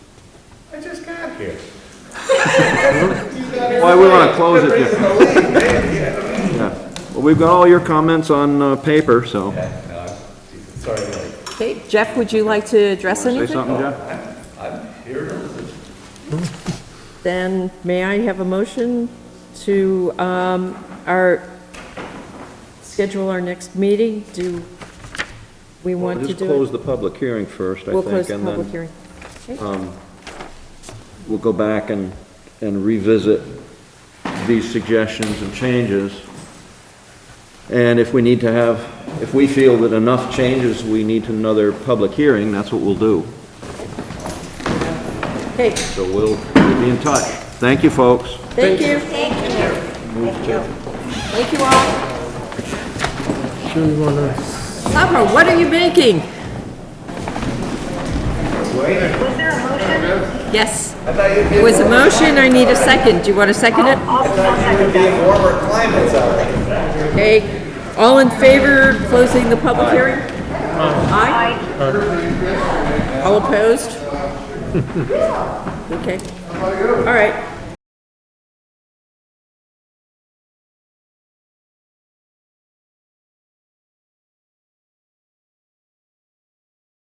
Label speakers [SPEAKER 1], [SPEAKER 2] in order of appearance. [SPEAKER 1] I just got here.
[SPEAKER 2] Why we wanna close it, yeah. Yeah. Well, we've got all your comments on uh, paper, so.
[SPEAKER 1] Yeah, no, I'm- Sorry, like,
[SPEAKER 3] Okay, Jeff, would you like to address
[SPEAKER 2] Say
[SPEAKER 3] anything?
[SPEAKER 2] something, Jeff?
[SPEAKER 1] I'm here to listen.
[SPEAKER 3] Then may I have a motion to, um, our, schedule our next meeting? Do we want to
[SPEAKER 2] Just
[SPEAKER 3] do
[SPEAKER 2] close
[SPEAKER 3] it?
[SPEAKER 2] the public hearing first, I
[SPEAKER 3] We'll
[SPEAKER 2] think.
[SPEAKER 3] close the
[SPEAKER 2] and then
[SPEAKER 3] public hearing.
[SPEAKER 2] We'll go back and, and revisit these suggestions and changes. And if we need to have, if we feel that enough changes, we need another public hearing, that's what we'll do.
[SPEAKER 3] Okay,
[SPEAKER 2] So we'll, we'll be in touch. Thank you, folks.
[SPEAKER 3] thank you. Thank you. Thank you all.
[SPEAKER 4] Sure you wanna,
[SPEAKER 3] Summer, what are you making? Yes. It was a motion, I need a second. Do you want to second it? Okay, all in favor of closing the public hearing? Aye. All opposed? Okay, all right.